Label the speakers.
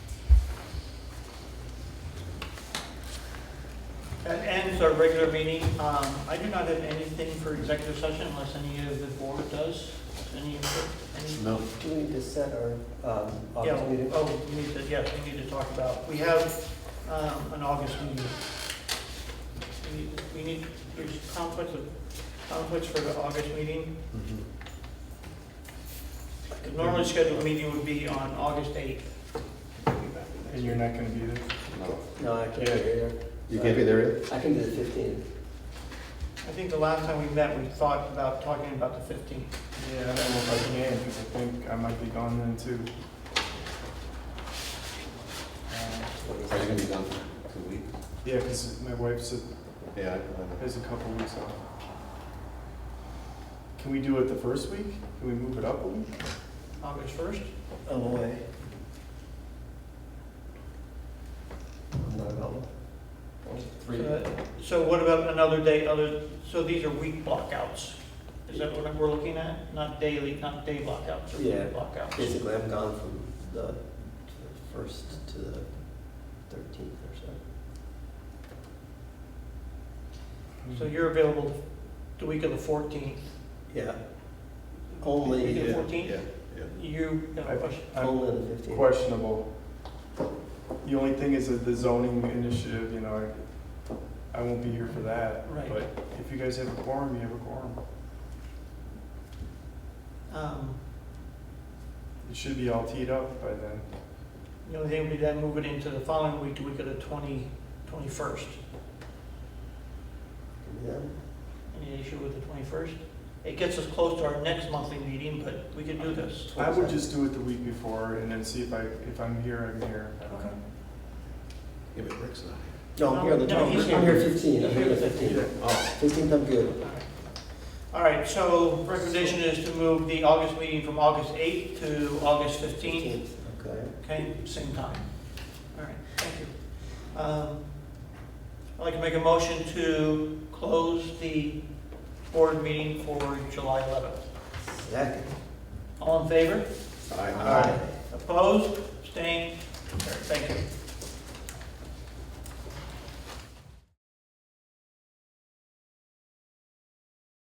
Speaker 1: concludes our regular meeting. Um, I do not have anything for executive session unless any of the board does. Any, any?
Speaker 2: No.
Speaker 3: Do we need to set our um,
Speaker 1: Yeah,
Speaker 3: August meeting?
Speaker 1: oh, we need to, yes, we need to talk about, we have, um, an August meeting. We need, we need, there's conflicts of, conflicts for the August meeting.
Speaker 2: Mhm.
Speaker 1: The normally scheduled meeting would be on August eighth.
Speaker 4: And you're not gonna be there?
Speaker 2: No.
Speaker 3: No, I can't be here.
Speaker 2: You can't be there yet?
Speaker 3: I can do the fifteenth.
Speaker 1: I think the last time we met, we thought about talking about the fifteenth.
Speaker 4: Yeah, I don't know if I can, because I think I might be gone then too. Uh,
Speaker 2: Are you gonna be gone for two weeks?
Speaker 4: Yeah, because my wife's,
Speaker 2: Yeah, I can.
Speaker 4: has a couple weeks off. Can we do it the first week? Can we move it up a week?
Speaker 1: August first?
Speaker 3: I'm away. I'm not available.
Speaker 1: So what about another day, other, so these are week blockouts? Is that what we're looking at? Not daily, not day blockouts, or
Speaker 3: Yeah.
Speaker 1: week blockouts?
Speaker 3: Basically, I'm gone from the first to the thirteenth or so.
Speaker 1: So you're available the week of the fourteenth?
Speaker 3: Yeah, Only,
Speaker 1: Week of the
Speaker 3: uh,
Speaker 1: fourteenth?
Speaker 2: Yeah, yeah.
Speaker 1: You, have a question?
Speaker 4: I'm
Speaker 3: only on the fifteenth.
Speaker 4: questionable. The only thing is that the zoning initiative, you know, I, I won't be here for that.
Speaker 1: Right.
Speaker 4: But if you guys have a quorum, you have a quorum.
Speaker 1: Um,
Speaker 4: It should be all teed up by then.
Speaker 1: The only thing would be then move it into the following week, the week of the twenty, twenty-first. Any issue with the twenty-first? It gets us close to our next monthly meeting, but we can do this.
Speaker 4: I would just do it the week before and then see if I, if I'm here, I'm here.
Speaker 1: Okay.
Speaker 2: Yeah, but Rick's not here.
Speaker 3: No, I'm here on the
Speaker 1: No, he's
Speaker 3: twelfth. I'm here
Speaker 1: here.
Speaker 3: fifteen, I'm
Speaker 1: He's
Speaker 3: here
Speaker 1: here
Speaker 3: the fifteenth.
Speaker 2: Oh,
Speaker 3: Fifteenth, I'm good.
Speaker 1: All right, so recommendation is to move the August meeting from August 8th to August 15th,
Speaker 3: Fifteenth, okay.
Speaker 1: okay, same time. All right, thank you. Um, I'd like to make a motion to close the board meeting for July 11th.
Speaker 3: Second.
Speaker 1: All in favor?
Speaker 2: I.
Speaker 1: Opposed, abstained, All right, thank you.